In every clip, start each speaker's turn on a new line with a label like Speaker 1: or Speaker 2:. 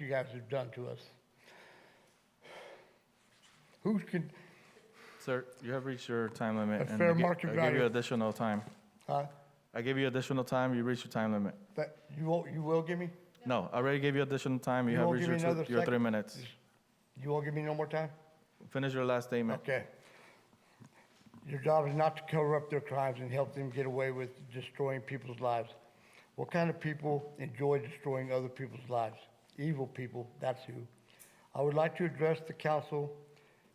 Speaker 1: you guys have done to us. Who can,
Speaker 2: Sir, you have reached your time limit.
Speaker 1: A
Speaker 2: and I
Speaker 1: fair
Speaker 2: gi-
Speaker 1: market
Speaker 2: I give
Speaker 1: value.
Speaker 2: you additional time.
Speaker 1: huh?
Speaker 2: I gave you additional time, you reached your time limit.
Speaker 1: That, you won't, you will give me?
Speaker 2: No, I already gave you additional time,
Speaker 1: You
Speaker 2: you have
Speaker 1: won't give
Speaker 2: reached your
Speaker 1: me
Speaker 2: two-
Speaker 1: another
Speaker 2: your
Speaker 1: sec-
Speaker 2: three minutes.
Speaker 1: You won't give me no more time?
Speaker 2: Finish your last statement.
Speaker 1: Okay. Your job is not to cover up their crimes and help them get away with destroying people's lives. What kind of people enjoy destroying other people's lives? Evil people, that's who. I would like to address the council.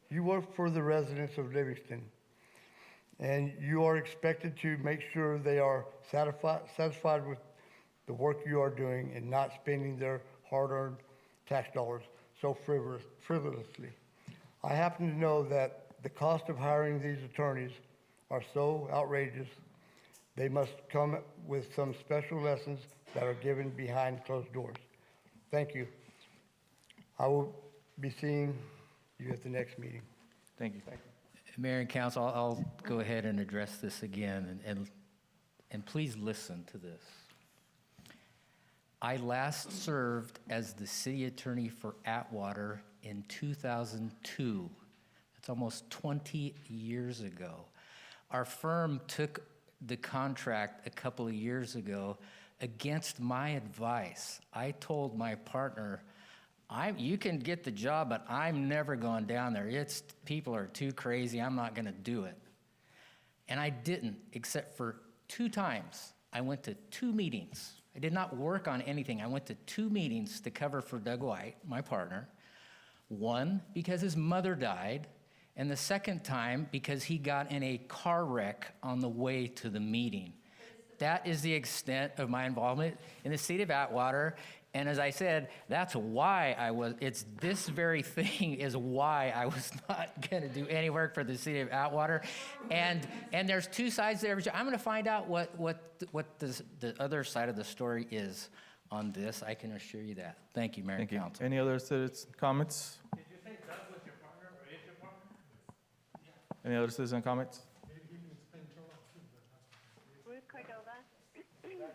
Speaker 1: You work for the residents of Livingston, and you are expected to make sure they are satisfied, satisfied with the work you are doing and not spending their hard-earned tax dollars so frivolous, frivolously. I happen to know that the cost of hiring these attorneys are so outrageous, they must come with some special lessons that are given behind closed doors. Thank you. I will be seeing you at the next meeting.
Speaker 2: Thank you.
Speaker 3: Mayor and council, I'll- I'll go ahead and address this again, and- and, and please listen to this. I last served as the city attorney for Atwater in 2002. That's almost 20 years ago. Our firm took the contract a couple of years ago against my advice. I told my partner, I, you can get the job, but I'm never going down there. It's people are too crazy. I'm not going to do it. And I didn't, except for two times. I went to two meetings. I did not work on anything. I went to two meetings to cover for Doug White, my partner. One, because his mother died, and the second time, because he got in a car wreck on the way to the meeting. That is the extent of my involvement in the state of Atwater. And as I said, that's why I was, it's this very thing is why I was not going to do any work for the city of Atwater. And, and there's two sides to every, I'm going to find out what, what, what the, the other side of the story is on this. I can assure you that. Thank you, Mayor and
Speaker 2: Thank you.
Speaker 3: Council.
Speaker 2: Any other citizens' comments? Any other citizen comments?
Speaker 4: Ruth Cordova.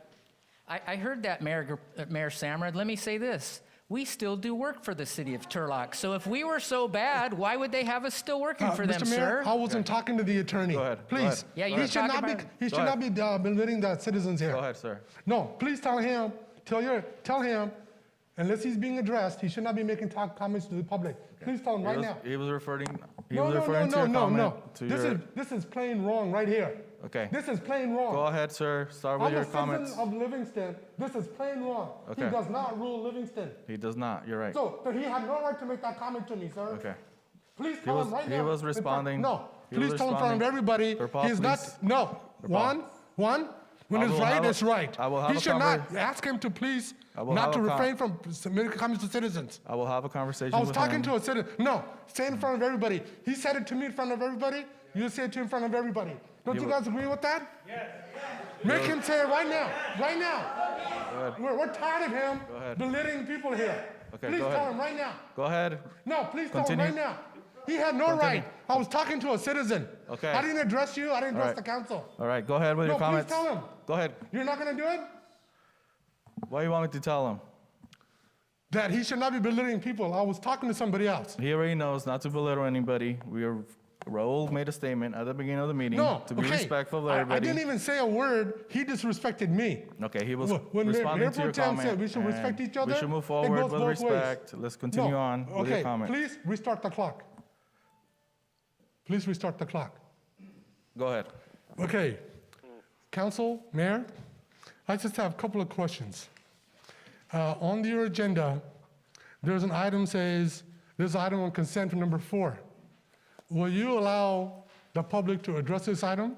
Speaker 3: I, I heard that, Mayor, Gr- uh, Mayor Samrad. Let me say this. We still do work for the city of Turlock. So if we were so bad, why would they have us still working
Speaker 5: Uh,
Speaker 3: for them,
Speaker 5: Mr.
Speaker 3: sir?
Speaker 5: Mayor, I wasn't talking to the attorney.
Speaker 2: Go ahead, go
Speaker 5: Please.
Speaker 2: ahead.
Speaker 3: Yeah, you were
Speaker 5: He should
Speaker 3: talking
Speaker 5: not be,
Speaker 3: about-
Speaker 5: he
Speaker 2: Go
Speaker 5: should not be uh, belittling the citizens here.
Speaker 2: Go ahead, sir.
Speaker 5: No, please tell him, tell your, tell him, unless he's being addressed, he should not be making talk comments to the public. Please tell him
Speaker 2: He
Speaker 5: right
Speaker 2: was-
Speaker 5: now.
Speaker 2: He was referring, he
Speaker 5: No,
Speaker 2: was
Speaker 5: no, no,
Speaker 2: referring to
Speaker 5: no,
Speaker 2: your
Speaker 5: no, no.
Speaker 2: comment. to
Speaker 5: This
Speaker 2: your-
Speaker 5: is, this is plain wrong right here.
Speaker 2: Okay.
Speaker 5: This is plain wrong.
Speaker 2: Go ahead, sir, start with
Speaker 5: I'm
Speaker 2: your
Speaker 5: a
Speaker 2: comments.
Speaker 5: citizen of Livingston. This is plain wrong. He
Speaker 2: Okay.
Speaker 5: does not rule Livingston.
Speaker 2: He does not, you're right.
Speaker 5: So, so he had no right to make that comment to me, sir.
Speaker 2: Okay.
Speaker 5: Please tell
Speaker 2: was-
Speaker 5: him right
Speaker 2: he
Speaker 5: now.
Speaker 2: was
Speaker 5: in front-
Speaker 2: responding-
Speaker 5: No,
Speaker 2: he was
Speaker 5: please tell him in front of
Speaker 2: responding.
Speaker 5: everybody.
Speaker 2: Verpaal,
Speaker 5: He's
Speaker 2: please.
Speaker 5: not, no.
Speaker 2: Verpaal.
Speaker 5: One, one, when
Speaker 2: I
Speaker 5: it's
Speaker 2: will have
Speaker 5: right,
Speaker 2: a-
Speaker 5: it's right.
Speaker 2: I will have
Speaker 5: He
Speaker 2: a
Speaker 5: should not,
Speaker 2: conver-
Speaker 5: ask him to please,
Speaker 2: I will have
Speaker 5: not to
Speaker 2: a con-
Speaker 5: refrain from making comments to citizens.
Speaker 2: I will have a conversation
Speaker 5: I
Speaker 2: with
Speaker 5: was
Speaker 2: him.
Speaker 5: talking to a citizen, no, say in front of everybody. He said it to me in front of everybody, you say it to him in front of everybody. Don't
Speaker 2: He
Speaker 5: you
Speaker 2: wa-
Speaker 5: guys agree with that? Yes. Make him say it right now, right now. We're, we're tired of him
Speaker 2: ahead.
Speaker 5: belittling people here.
Speaker 2: Okay,
Speaker 5: Please
Speaker 2: go ahead.
Speaker 5: tell him right now.
Speaker 2: Go ahead.
Speaker 5: No, please tell him
Speaker 2: Continue.
Speaker 5: right now. He had no
Speaker 2: Continue.
Speaker 5: right. I was talking to a citizen.
Speaker 2: Okay.
Speaker 5: I didn't address you. I didn't address
Speaker 2: right.
Speaker 5: the council.
Speaker 2: All right, go ahead with your
Speaker 5: No, please
Speaker 2: comments.
Speaker 5: tell him.
Speaker 2: Go ahead.
Speaker 5: You're not gonna do it?
Speaker 2: What do you want me to tell him?
Speaker 5: That he should not be belittling people. I was talking to somebody else.
Speaker 2: He already knows not to belittle anybody. We are, Raul made a statement at the beginning of the meeting
Speaker 5: No,
Speaker 2: to be
Speaker 5: okay.
Speaker 2: respectful
Speaker 5: I-
Speaker 2: of everybody.
Speaker 5: I, didn't even say a word. He disrespected me.
Speaker 2: Okay, he was
Speaker 5: Wh- when Mayor-
Speaker 2: responding
Speaker 5: Mayor
Speaker 2: to your
Speaker 5: Pro Tem
Speaker 2: comment.
Speaker 5: said we should respect
Speaker 2: and
Speaker 5: each other,
Speaker 2: We should move
Speaker 5: it
Speaker 2: forward
Speaker 5: goes
Speaker 2: with
Speaker 5: both ways.
Speaker 2: respect. Let's continue
Speaker 5: No,
Speaker 2: on with your
Speaker 5: okay,
Speaker 2: comment.
Speaker 5: Please restart the clock. Please restart the clock.
Speaker 2: Go ahead.
Speaker 5: Okay, Council, Mayor, I just have a couple of questions. Uh, On your agenda, there's an item says, there's an item on consent for number four. Will you allow the public to address this item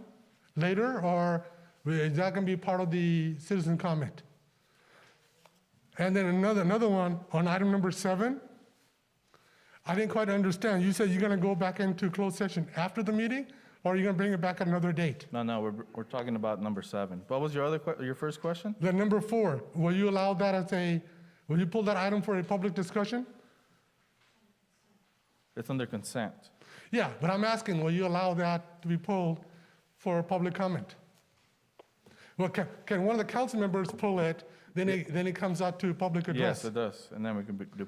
Speaker 5: later, or is that going to be part of the citizen comment? And then another, another one, on item number seven, I didn't quite understand. You said you're going to go back into closed session after the meeting, or you're going to bring it back at another date?
Speaker 2: No, no, we're, we're talking about number seven. What was your other, que- your first question?
Speaker 5: The number four, will you allow that as a, will you pull that item for a public discussion?
Speaker 2: It's under consent.
Speaker 5: Yeah, but I'm asking, will you allow that to be pulled for public comment? Well, can, can one of the council members pull it?
Speaker 6: Then it, then it comes out to public address.
Speaker 5: Yes, it does. And then we can be- do